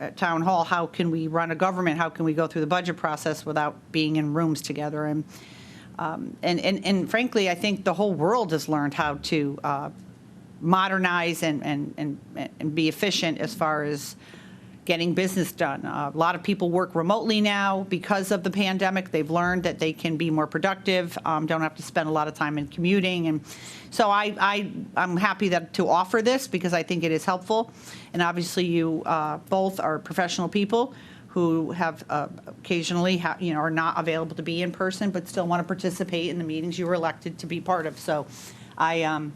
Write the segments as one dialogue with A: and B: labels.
A: at town hall, how can we run a government? How can we go through the budget process without being in rooms together? And, um, and, and and frankly, I think the whole world has learned how to uh, modernize and, and, and, and be efficient as far as getting business done. Uh, a lot of people work remotely now because of the pandemic. They've learned that they can be more productive, um, don't have to spend a lot of time in commuting. And so I, I, I'm happy that, to offer this because I think it is helpful. And obviously, you uh, both are professional people who have uh, occasionally, ha- you know, are not available to be in person, but still want to participate in the meetings you were elected to be part of. So I, um,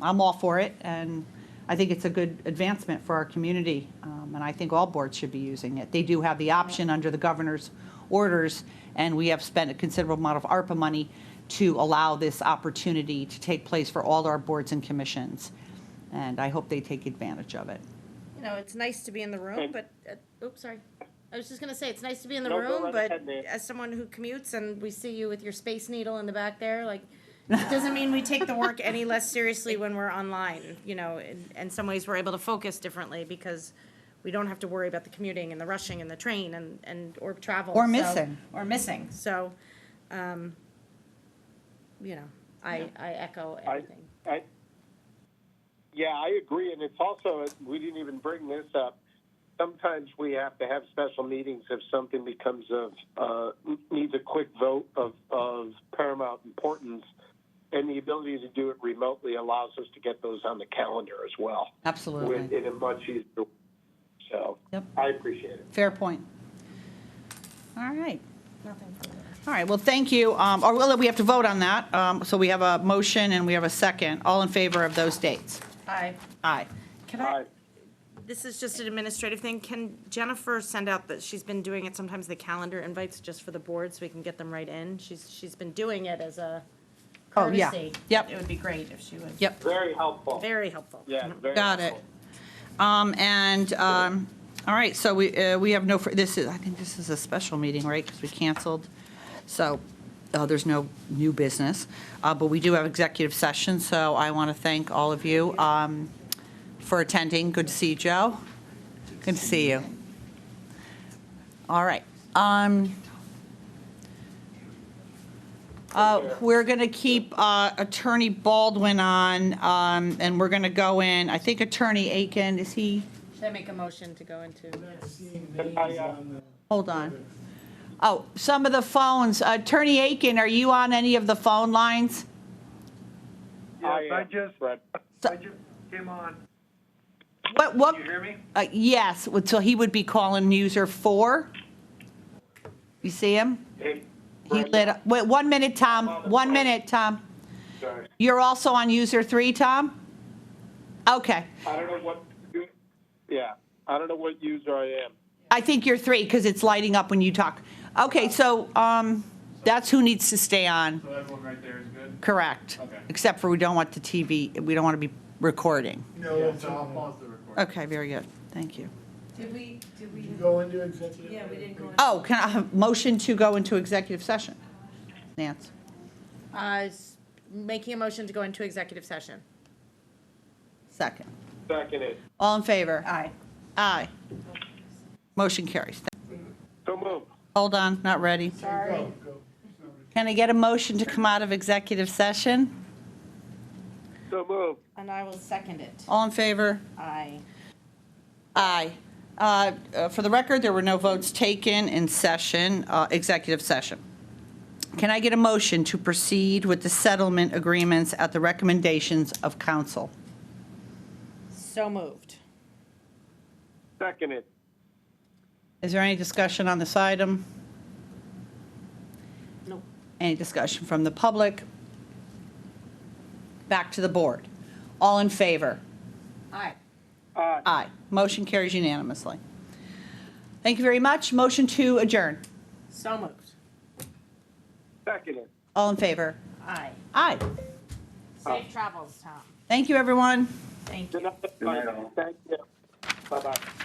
A: I'm all for it, and I think it's a good advancement for our community, um, and I think all boards should be using it. They do have the option under the governor's orders, and we have spent a considerable amount of ARPA money to allow this opportunity to take place for all our boards and commissions, and I hope they take advantage of it.
B: You know, it's nice to be in the room, but, uh, oops, sorry. I was just gonna say, it's nice to be in the
C: No, go
B: room,
C: right
B: but
C: ahead, Nan.
B: as someone who commutes and we see you with your space needle in the back there, like, it doesn't mean we take the work any less seriously when we're online, you know, in, in some ways we're able to focus differently because we don't have to worry about the commuting and the rushing and the train and, and, or travel.
A: Or
B: so-
A: missing.
B: Or missing, so, um, you know, I, I echo
C: I,
B: everything.
C: I, yeah, I agree, and it's also, we didn't even bring this up. Sometimes we have to have special meetings if something becomes of, uh, needs a quick vote of, of paramount importance. And the ability to do it remotely allows us to get those on the calendar as well. With,
A: Absolutely.
C: in a much easier, way. so,
A: Yep.
C: I appreciate it.
A: Fair point. All right. All right, well, thank you. Um, Or well, we have to vote on that, Um, so we have a motion and we have a second. All in favor of those dates?
B: Aye.
A: Aye.
B: Can
C: All
B: I,
C: right.
B: This is just an administrative thing. Can Jennifer send out that she's been doing it sometimes the calendar invites just for the board so we can get them right in? She's, she's been doing it as a
A: Oh, yeah.
B: courtesy.
A: Yep.
B: It would be great if she would.
A: Yep.
C: Very helpful.
B: Very helpful.
C: Yeah, very
A: Got it.
C: helpful.
A: Um, and, um, all right, so we, uh, we have no, fur- this is, I think this is a special meeting, right? Because we canceled. So, uh, there's no new business, uh, but we do have executive session, so I want to thank all of you, um, for attending. Good to see you, Joe. Good to see you. All right, um, uh, We're going to keep uh, Attorney Baldwin on, um, and we're going to go in, I think Attorney Aiken, is he,
B: Should I make a motion to go into?
C: I, uh,
A: hold on. Oh, some of the phones, Attorney Aiken, are you on any of the phone lines?
D: Yes,
C: I uh,
D: I
C: am,
D: just,
C: Fred.
D: I just came on.
A: What, what,
D: Can you hear me?
A: uh, yes, so he would be calling user four? You see him?
C: Hey,
A: He
C: Fred,
A: lit, up- wait, one minute, Tom, one minute, Tom.
C: sorry.
A: You're also on user three, Tom? Okay.
C: I don't know what, yeah, I don't know what user I am.
A: I think you're three because it's lighting up when you talk. Okay, so um, that's who needs to stay on,
D: So everyone right there is good?
A: correct?
D: Okay.
A: Except for we don't want the TV, we don't want to be recording.
E: No,
D: so I'll pause the recording.
A: Okay, very good, thank you.
F: Did we, did we,
E: you go into executive.
F: yeah, we didn't go into.
A: Oh, can I have motion to go into executive session? Nance,
B: Uh, s- making a motion to go into executive session.
A: second.
C: Seconded.
A: All in favor?
B: Aye.
A: Aye. Motion carries.
C: So move.
A: Hold on, not ready.
B: Sorry.
E: Go, go.
A: Can I get a motion to come out of executive session?
C: So move.
B: And I will second it.
A: All in favor?
B: Aye.
A: Aye. Uh, uh, For the record, there were no votes taken in session, uh, executive session. Can I get a motion to proceed with the settlement agreements at the recommendations of council?
B: So moved.
C: Seconded.
A: Is there any discussion on this item?
B: No.
A: Any discussion from the public? Back to the board. All in favor?
B: Aye.
C: Aye.
A: Aye. Motion carries unanimously. Thank you very much. Motion to adjourn.
B: So moved.
C: Seconded.
A: All in favor?
B: Aye.
A: Aye.
B: Safe travels, Tom.
A: Thank you, everyone.
B: Thank you.
C: Good night, everybody. Thank you. Bye-bye.